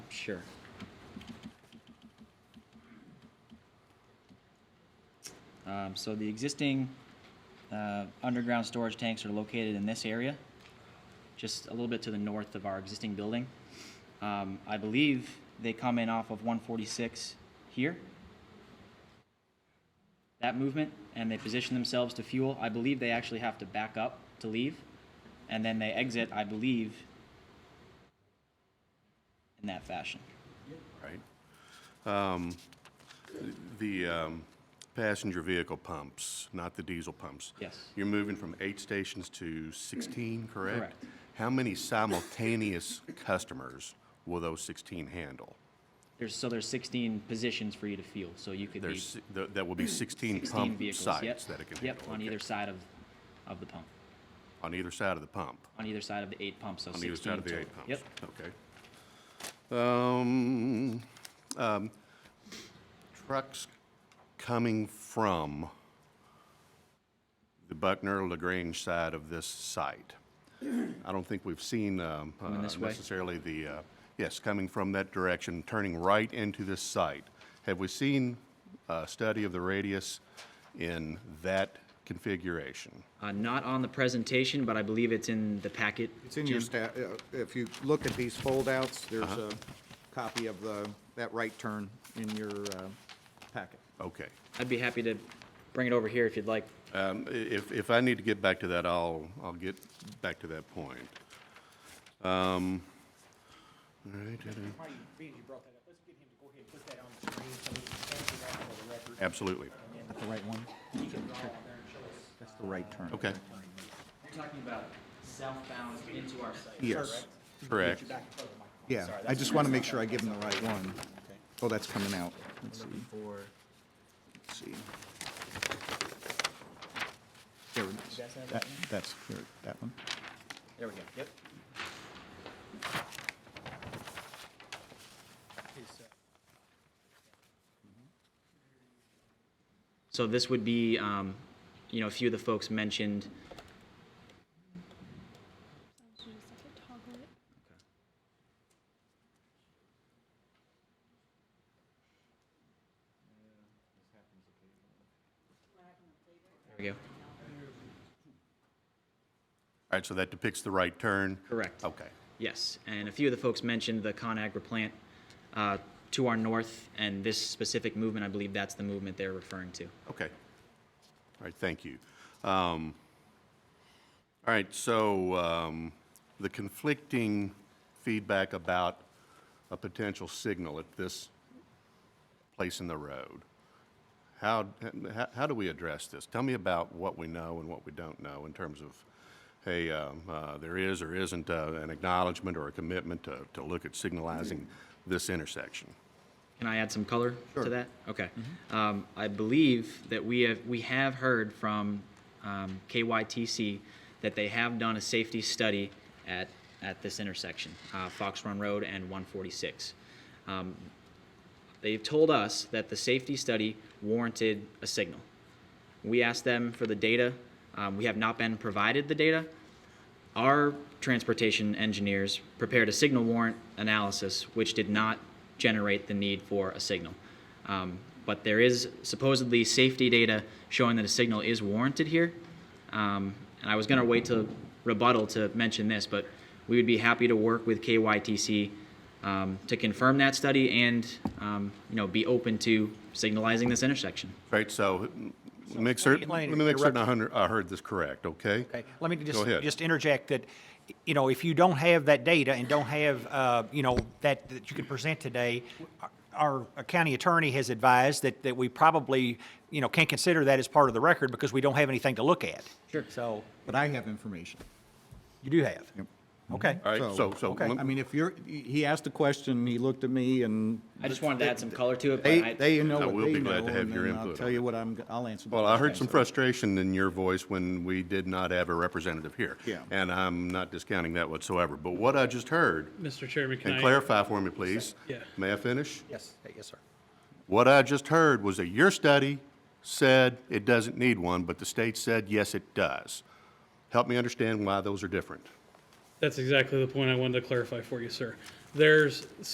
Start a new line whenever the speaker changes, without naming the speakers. Sure. Um, so the existing, uh, underground storage tanks are located in this area, just a little bit to the north of our existing building. Um, I believe they come in off of one forty-six here. That movement, and they position themselves to fuel. I believe they actually have to back up to leave, and then they exit, I believe, in that fashion.
right? Um, The um, passenger vehicle pumps, not the diesel pumps.
Yes.
You're moving from eight stations to 16, correct?
Correct.
How many simultaneous customers will those 16 handle?
There's, so there's 16 positions for you to fuel, so you could be
There's, si- th- that will be 16
16
pump
vehicles. Yep.
sites that it can handle.
Yep, on
okay.
either side of, of the pump,
On either side of the pump?
on either side of the eight pumps, so
On
16
either side of the
total.
eight pumps?
Yep,
Okay. Um, um, Trucks coming from the Buckner LaGrange side of this site. I don't think we've seen um, uh,
this way?
necessarily the, uh, yes, coming from that direction, turning right into this site. Have we seen a study of the radius in that configuration?
Uh, not on the presentation, but I believe it's in the packet.
It's in your
Jim.
staff, if you look at these foldouts, there's
Uh-huh.
a copy of the, that right turn in your uh, packet.
Okay.
I'd be happy to bring it over here if you'd like.
Um, i- If, if I need to get back to that, I'll, I'll get back to that point. Um, All right, uh,
Marty, being you brought that up, let's get him to go ahead and put that on the screen so we can capture that for the record.
absolutely.
That's the right one?
He can draw on there and show us.
That's the right turn.
Okay,
You're talking about southbound into our site.
Yes,
correct.
yeah. I just want to make sure I give them the right one. Oh, that's coming out. Let's see. Let's see. There it is. That, that's, clear. that one.
There we go, yep. So this would be, um, you know, a few of the folks mentioned,
So you just have to toggle it.
there we go.
All right, so that depicts the right turn?
Correct.
Okay,
Yes, and a few of the folks mentioned the ConAgra plant uh, to our north, and this specific movement, I believe that's the movement they're referring to.
okay. All right, thank you. Um, All right, so um, the conflicting feedback about a potential signal at this place in the road. How, how, how do we address this? Tell me about what we know and what we don't know in terms of, hey, um, uh, there is or isn't uh, an acknowledgement or a commitment to, to look at signalizing this intersection.
Can I add some color to that? Okay. Um, I believe that we have, we have heard from um, KYTC that they have done a safety study at, at this intersection, uh, Fox Run Road and 146. Um, They've told us that the safety study warranted a signal. We asked them for the data. Um, We have not been provided the data. Our transportation engineers prepared a signal warrant analysis, which did not generate the need for a signal. Um, But there is supposedly safety data showing that a signal is warranted here. Um, And I was going to wait to rebuttal to mention this, but we would be happy to work with KYTC um, to confirm that study and, um, you know, be open to signalizing this intersection.
Right, so make certain, let
Lane,
me make
you're
certain I hun- I heard this correct, okay?
Okay, let me just,
ahead.
just interject that, you know, if you don't have that data and don't have, uh, you know, that, that you can present today, our our county attorney has advised that, that we probably, you know, can't consider that as part of the record because we don't have anything to look at.
Sure.
So,
But I have information.
you do have. Okay.
All right, so, so.
okay,
lem-
I mean, if you're, he asked a question, he looked at me and
I just wanted to add some color to it,
They,
but I,
they know
I
what
will
they
be glad
know,
to have
and
your
then I'll
input
tell
on
you what I'm, I'll answer.
Well, I heard some
questions.
frustration in your voice when we did not have a representative here.
Yeah.
And I'm not discounting that whatsoever, but what I just heard,
Mr. Chairman, can
and
I,
clarify for me, please.
Yeah.
May I finish?
Yes, yes, sir.
What I just heard was that your study said it doesn't need one, but the state said, yes, it does. Help me understand why those are different.
that's exactly the point I wanted to clarify for you, sir. There's